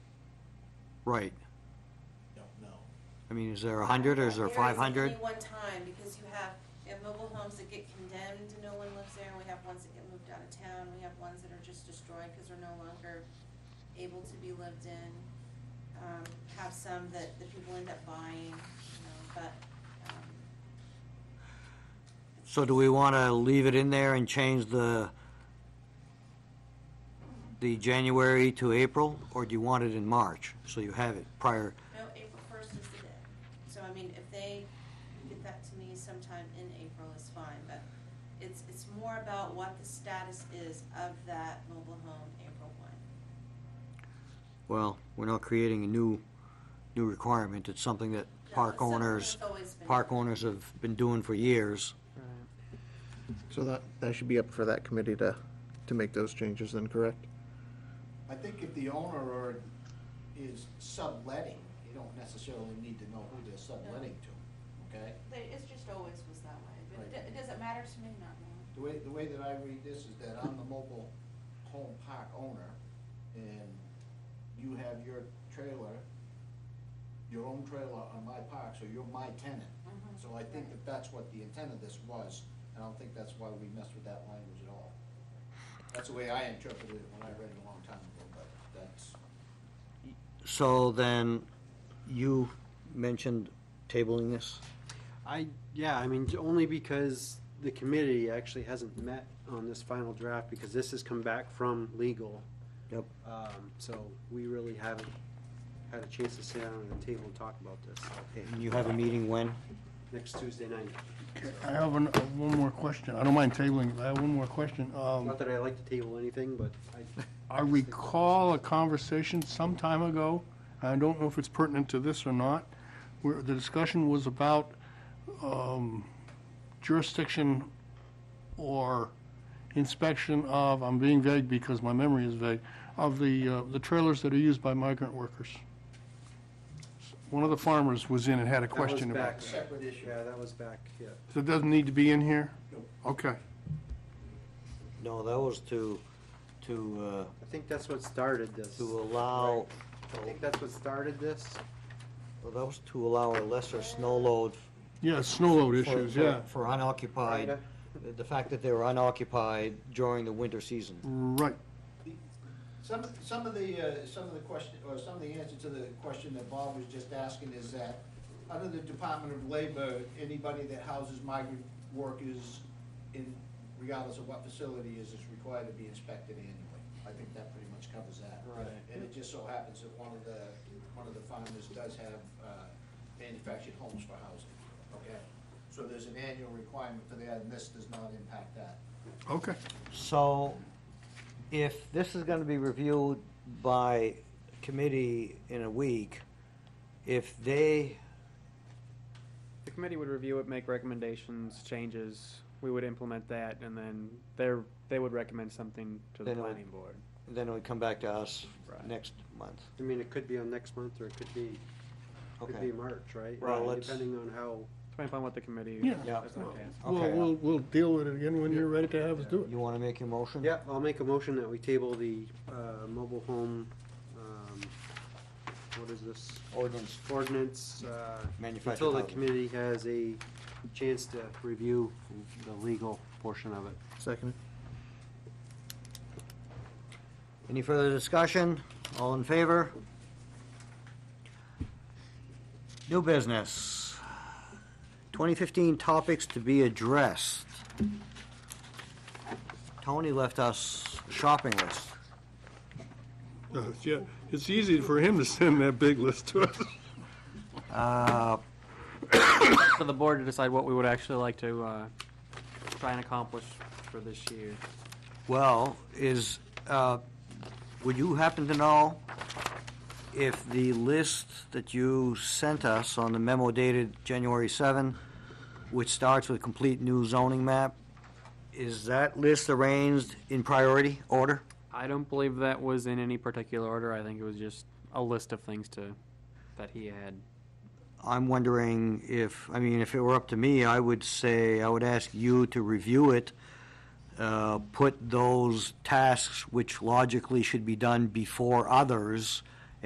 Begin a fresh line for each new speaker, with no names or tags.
Right.
don't know.
I mean, is there 100 or is there
There is
500?
only one time, because you have, you have mobile homes that get condemned, no one lives there, and we have ones that get moved out of town, we have ones that are just destroyed because they're no longer able to be lived in. Um, have some that the people end up buying, you know, but, um,
So do we want to leave it in there and change the, the January to April? Or do you want it in March, so you have it prior?
no, April first is the day. So, I mean, if they get that to me sometime in April is fine, but it's, it's more about what the status is of that mobile home April one.
Well, we're not creating a new, new requirement. It's something that
No, it's
park
something
owners,
that's always been
park
done.
owners have been doing for years.
So that, that should be up for that committee to, to make those changes then, correct?
I think if the owner or is subletting, you don't necessarily need to know who they're subletting to, okay?
They- It's just always was that way, but it
Right.
do- it doesn't matter to me not knowing.
The way, the way that I read this is that I'm the mobile home park owner, and you have your trailer, your own trailer on my park, so you're my tenant.
Mhm.
So I think that that's what the intent of this was, and I don't think that's why we messed with that language at all. That's the way I interpreted it when I read it a long time ago, but that's,
So then, you mentioned tabling this?
I, yeah, I mean, only because the committee actually hasn't met on this final draft, because this has come back from legal.
Yep.
Um, so we really haven't had a chance to sit down at the table and talk about this,
And you have a meeting when?
next Tuesday night.
I have an- uh, one more question. I don't mind tabling, but I have one more question. Um,
Not that I like to table anything, but I,
I recall a conversation some time ago, I don't know if it's pertinent to this or not, where the discussion was about um, jurisdiction or inspection of, I'm being vague because my memory is vague, of the, uh, the trailers that are used by migrant workers. One of the farmers was in and had a
that was
question about
back,
that.
Separate issue.
yeah, that was back, yeah.
So it doesn't need to be in here? Okay.
No, that was to, to,
I think that's what started this.
uh, to allow,
I think that's what started this.
well, that was to allow a lesser snow load.
Yeah, snow load
for-
issues,
for-
yeah.
For unoccupied,
Kinda.
the- the fact that they were unoccupied during the winter season.
Right.
Some, some of the, uh, some of the question, or some of the answer to the question that Bob was just asking is that, under the Department of Labor, anybody that houses migrant workers in, regardless of what facility is, is required to be inspected annually. I think that pretty much covers that.
Right.
And it just so happens that one of the, one of the farmers does have, uh, manufactured homes for housing, okay? So there's an annual requirement for that, and this does not impact that.
Okay.
So if this is gonna be reviewed by committee in a week, if they,
The committee would review it, make recommendations, changes. We would implement that, and then they're, they would recommend something to the
Then it would-
planning board.
then it would come back to us
Right.
next month.
I mean, it could be on next month, or it could be, could
Okay.
be March, right?
Well,
Uh,
let's-
Depending on how,
Depending upon what the committee.
Yeah.
Yeah.
is gonna pass.
Well,
Okay.
we'll, we'll deal with it again when you're ready to have us do it.
You wanna make your motion?
Yeah, I'll make a motion that we table the uh, mobile home, um, what is this,
Ordinance.
ordinance? uh,
Manufactured
Until the
housing.
committee has a chance to review the legal portion of it.
Second.
Any further discussion? All in favor? New business. 2015 topics to be addressed. Tony left us a shopping list.
No, it's- Yeah, it's easy for him to send that big list to us.
Uh,
For the board to decide what we would actually like to, uh, try and accomplish for this year.
Well, is, uh, would you happen to know if the list that you sent us on the memo dated January 7, which starts with complete new zoning map, is that list arranged in priority order?
I don't believe that was in any particular order. I think it was just a list of things to, that he had.
I'm wondering if, I mean, if it were up to me, I would say, I would ask you to review it, uh, put those tasks which logically should be done before others